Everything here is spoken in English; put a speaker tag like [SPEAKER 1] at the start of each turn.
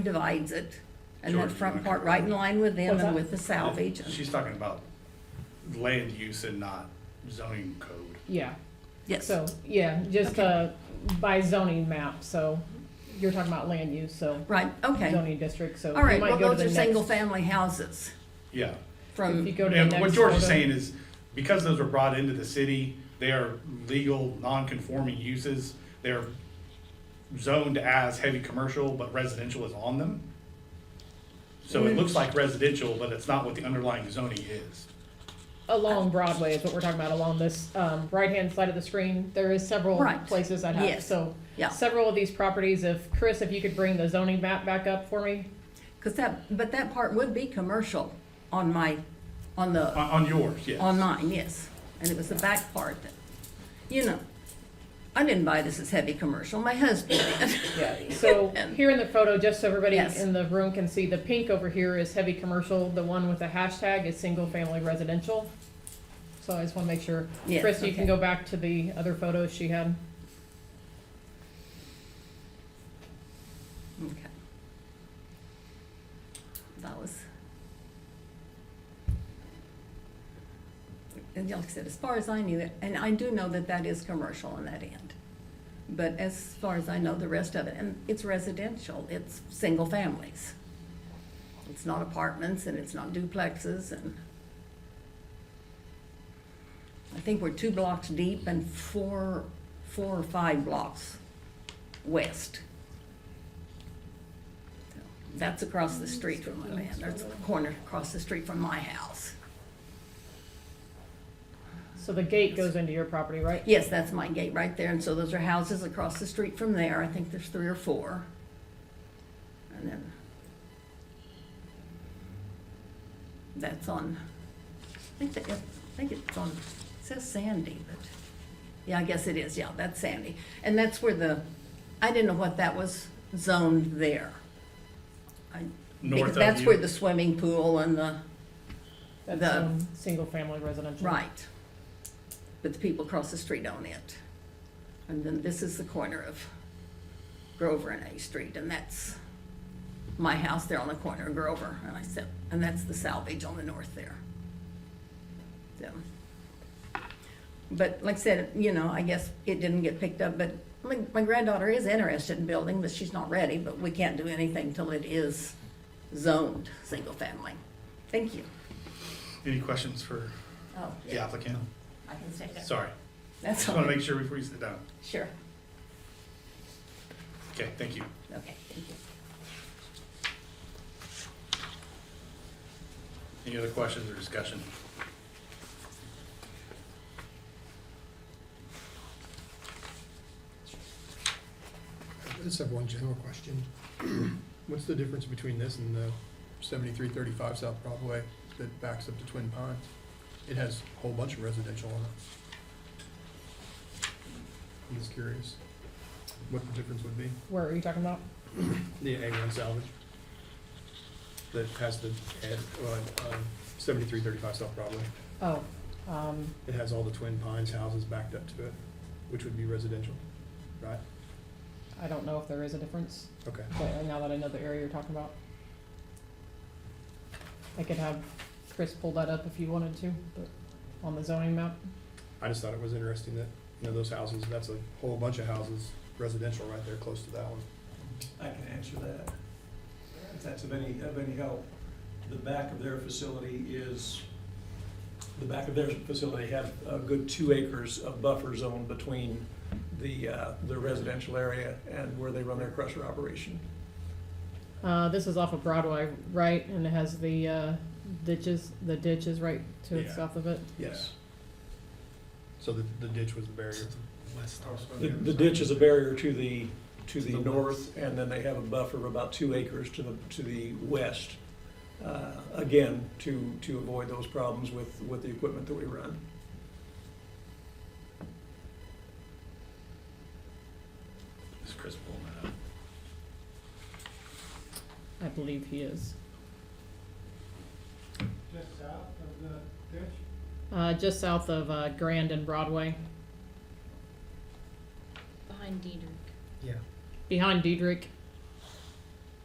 [SPEAKER 1] divides it, and that
[SPEAKER 2] George,
[SPEAKER 1] front
[SPEAKER 2] okay.
[SPEAKER 1] part right in line with them
[SPEAKER 3] What's
[SPEAKER 1] and
[SPEAKER 3] that?
[SPEAKER 1] with the salvage. and-
[SPEAKER 2] She's talking about land use and not zoning code.
[SPEAKER 3] Yeah,
[SPEAKER 1] Yes,
[SPEAKER 3] so, yeah, just, uh, by zoning map, so you're talking about land use, so
[SPEAKER 1] right, okay.
[SPEAKER 3] zoning district, so
[SPEAKER 1] All
[SPEAKER 3] we
[SPEAKER 1] right,
[SPEAKER 3] might
[SPEAKER 1] well,
[SPEAKER 3] go to
[SPEAKER 1] those
[SPEAKER 3] the
[SPEAKER 1] are
[SPEAKER 3] next.
[SPEAKER 1] single-family houses
[SPEAKER 2] Yeah.
[SPEAKER 3] If
[SPEAKER 1] from,
[SPEAKER 3] you go to the
[SPEAKER 2] And
[SPEAKER 3] next.
[SPEAKER 2] what George is
[SPEAKER 3] photo.
[SPEAKER 2] saying is, because those were brought into the city, they are legal, non-conforming uses. They're zoned as heavy commercial, but residential is on them. So it looks like residential, but it's not what the underlying zoning is.
[SPEAKER 3] Along Broadway is what we're talking about, along this, um, right-hand side of the screen, there is several
[SPEAKER 1] Right.
[SPEAKER 3] places that have,
[SPEAKER 1] Yes.
[SPEAKER 3] so.
[SPEAKER 1] Yeah.
[SPEAKER 3] Several of these properties, if, Chris, if you could bring the zoning map back up for me,
[SPEAKER 1] because that, but that part would be commercial on my, on
[SPEAKER 2] On,
[SPEAKER 1] the,
[SPEAKER 2] on yours, yes.
[SPEAKER 1] on mine, yes. And it was the back part that, you know, I didn't buy this as heavy commercial, my husband did.
[SPEAKER 3] Yeah, so
[SPEAKER 1] And-
[SPEAKER 3] here in the photo, just so everybody
[SPEAKER 1] Yes.
[SPEAKER 3] in the room can see, the pink over here is heavy commercial, the one with the hashtag is single family residential. So I just wanna make sure,
[SPEAKER 1] Yes,
[SPEAKER 3] Chris, you can
[SPEAKER 1] okay.
[SPEAKER 3] go back to the other photos she had.
[SPEAKER 1] Okay. That was. And like I said, as far as I knew, and I do know that that is commercial on that end. But as far as I know, the rest of it, and it's residential, it's single families. It's not apartments and it's not duplexes and. I think we're two blocks deep and four, four or five blocks west. That's across the street from my land, that's the corner across the street from my house.
[SPEAKER 3] So the gate goes into your property, right?
[SPEAKER 1] Yes, that's my gate right there, and so those are houses across the street from there, I think there's three or four. And then. That's on, I think that, I think it's on, it says Sandy, but, yeah, I guess it is, yeah, that's Sandy. And that's where the, I didn't know what that was zoned there. I-
[SPEAKER 2] North
[SPEAKER 1] Because
[SPEAKER 2] of
[SPEAKER 1] that's
[SPEAKER 2] you.
[SPEAKER 1] where the swimming pool and the.
[SPEAKER 3] That's,
[SPEAKER 1] The-
[SPEAKER 3] um, single family residential.
[SPEAKER 1] Right. But the people across the street own it. And then this is the corner of Grover and A Street, and that's my house there on the corner of Grover, and I said, and that's the salvage on the north there. So. But like I said, you know, I guess it didn't get picked up, but my, my granddaughter is interested in building, but she's not ready, but we can't do anything till it is zoned, single family. Thank you.
[SPEAKER 2] Any questions for
[SPEAKER 1] Oh,
[SPEAKER 2] the applicant?
[SPEAKER 1] I can stay there.
[SPEAKER 2] Sorry,
[SPEAKER 1] That's
[SPEAKER 2] just
[SPEAKER 1] all.
[SPEAKER 2] wanna make sure before you sit down.
[SPEAKER 1] Sure.
[SPEAKER 2] Okay, thank you.
[SPEAKER 1] Okay, thank you.
[SPEAKER 2] Any other questions or discussion?
[SPEAKER 4] I just have one general question. What's the difference between this and the seventy-three thirty-five South Broadway that backs up to Twin Pines? It has a whole bunch of residential on it. I'm just curious what the difference would be.
[SPEAKER 3] Where are you talking about?
[SPEAKER 4] The A one salvage that has the, on seventy-three thirty-five South Broadway.
[SPEAKER 3] Oh, um,
[SPEAKER 4] It has all the Twin Pines houses backed up to it, which would be residential, right?
[SPEAKER 3] I don't know if there is a difference,
[SPEAKER 4] Okay.
[SPEAKER 3] but now that I know the area you're talking about. I could have Chris pull that up if you wanted to, but on the zoning map.
[SPEAKER 4] I just thought it was interesting that, you know, those houses, that's a whole bunch of houses, residential right there, close to that one.
[SPEAKER 5] I can answer that. If that's of any, of any help, the back of their facility is, the back of their facility have a good two acres of buffer zone between the, uh, the residential area and where they run their crusher operation.
[SPEAKER 3] Uh, this is off of Broadway, right, and it has the, uh, ditches, the ditch is right to the
[SPEAKER 4] Yeah.
[SPEAKER 3] south of it.
[SPEAKER 5] Yes.
[SPEAKER 4] So the, the ditch was the barrier.
[SPEAKER 5] The, the ditch is a barrier to the, to the north, and then they have a buffer of about two acres to the, to the west. Uh, again, to, to avoid those problems with, with the equipment that we run.
[SPEAKER 2] Is Chris pulling that up?
[SPEAKER 3] I believe he is.
[SPEAKER 6] just south of the ditch?
[SPEAKER 3] Uh, just south of, uh, Grand and Broadway,
[SPEAKER 7] Behind Diedrich.
[SPEAKER 4] Yeah.
[SPEAKER 3] behind Diedrich,